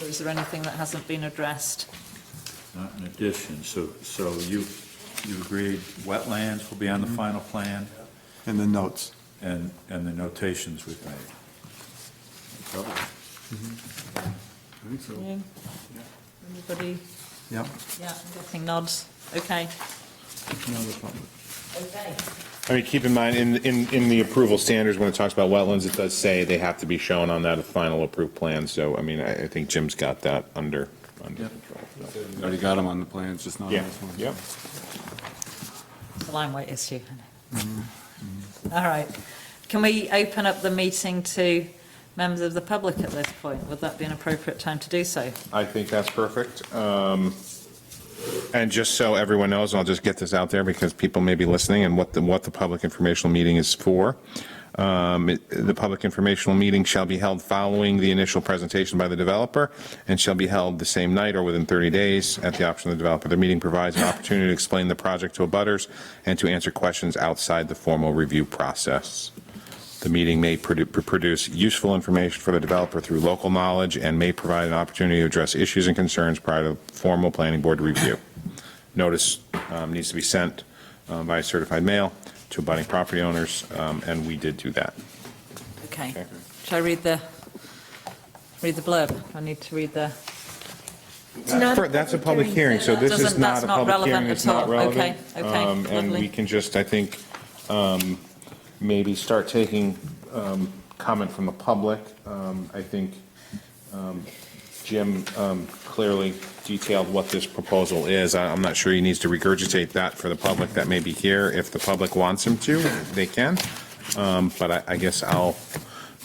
Or is there anything that hasn't been addressed? Not in addition, so, so you, you agreed wetlands will be on the final plan in the notes. and, and the notations we've made. Covered it. I think so. Yeah. Anybody? Yep, Yeah, getting nods. Okay. no other public. Okay. I mean, keep in mind, in, in, in the approval standards, when it talks about wetlands, it does say they have to be shown on that final approved plan, so, I mean, I, I think Jim's got that under, under control. so. Already got them on the plans, just not on Yeah, this one. yeah. It's a line weight issue. Mm-hmm. isn't it? All right. Can we open up the meeting to members of the public at this point? Would that be an appropriate time to do so? I think that's perfect. Um, And just so everyone knows, I'll just get this out there because people may be listening and what the, what the public informational meeting is for. Um, it- The public informational meeting shall be held following the initial presentation by the developer and shall be held the same night or within 30 days at the option of the developer. The meeting provides an opportunity to explain the project to abutters and to answer questions outside the formal review process. The meeting may produ- produce useful information for the developer through local knowledge and may provide an opportunity to address issues and concerns prior to formal planning board review. Notice um, needs to be sent um, by certified mail to abutting property owners, um, and we did do that. Okay. Okay. Shall I read the, read the blurb? I need to read the. For- That's a public hearing, so this is Doesn't- not that's a not public relevant hearing, it's at not all. relevant. Okay, okay, Um, And lovely. we can just, I think, um, maybe start taking um, comment from the public. Um, I think um, Jim um, clearly detailed what this proposal is. I- I'm not sure he needs to regurgitate that for the public that may be here. If the public wants him to, they can. Um, But I- I guess I'll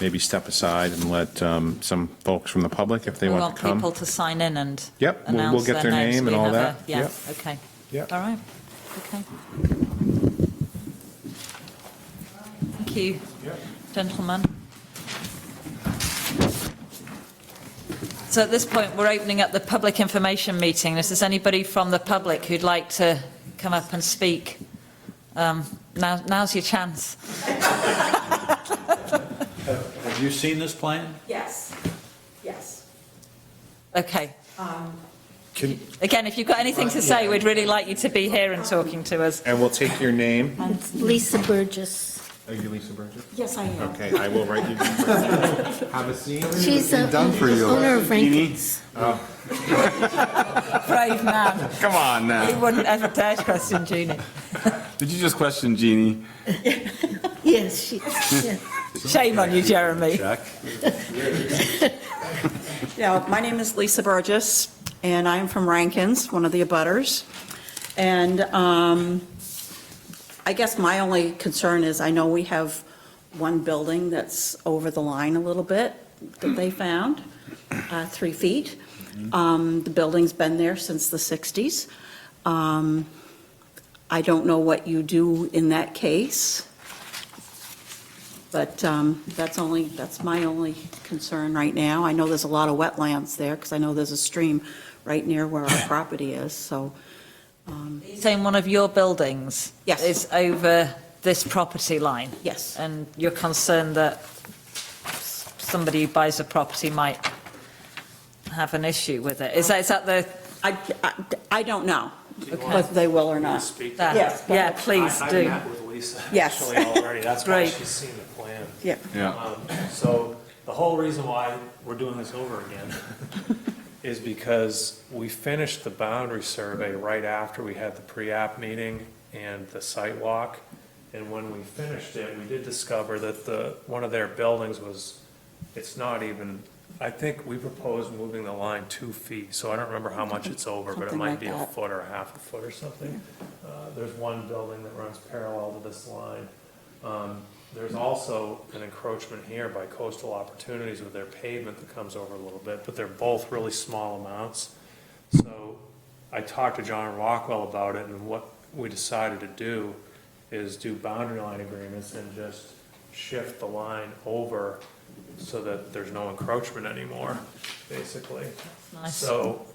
maybe step aside and let um, some folks from the public, if they We want want to come. people to sign in and. Yep, we'll- we'll announce get their names. name and We all have a- that. Yeah, Yep. okay. Yep. All right, okay. Thank you, gentlemen. So at this point, we're opening up the public information meeting. If there's anybody from the public who'd like to come up and speak, um, now, now's your chance. Have you seen this plan? Yes, yes. Okay. Um, Can- Again, if you've got anything to say, we'd really like you to be here and talking to us. And we'll take your name. Lisa Burgess. Are you Lisa Burgess? Yes, I am. Okay, I will write you. Have a seat. She's the done for you. owner of Rankin's. Brave man. Come on He now. wouldn't ever dare question Jeannie. Did you just question Jeannie? Yes, she, yeah. Shame on you, Jeremy. Jack? Yeah, my name is Lisa Burgess, and I'm from Rankins, one of the abutters. And um, I guess my only concern is, I know we have one building that's over the line a little bit that they found, uh, three feet. Um, The building's been there since the 60s. Um, I don't know what you do in that case, but um, that's only, that's my only concern right now. I know there's a lot of wetlands there, because I know there's a stream right near where our property is, so. You're Saying one of your buildings Yes. is over this property line, Yes, and you're concerned that s- somebody who buys a property might have an issue with it. Is that, is that the, I, I- I don't know whether they will or not. speak. that? Yes, but- Yeah, please I- I do. met with Lisa. Yes. actually Already, that's why Great. she's seen the plan. Yeah. Yeah. Um, So the whole reason why we're doing this over again is because we finished the boundary survey right after we had the pre-app meeting and the site walk. And when we finished it, we did discover that the, one of their buildings was, it's not even, I think we proposed moving the line two feet, so I don't remember how much it's over, but it Something might like be a that. foot or a half a foot or something. Uh, There's one building that runs parallel to this line. Um, There's also an encroachment here by coastal opportunities with their pavement that comes over a little bit, but they're both really small amounts. So I talked to John Rockwell about it, and what we decided to do is do boundary line agreements and just shift the line over so that there's no encroachment anymore, basically. nice. So,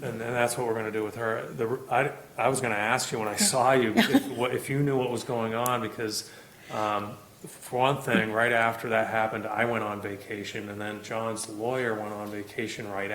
and then that's what we're gonna do with her. The, I, I was gonna ask you when I saw you, if, what- if you knew what was going on, because, um, for one thing, right after that happened, I went on vacation, and then John's lawyer went on vacation right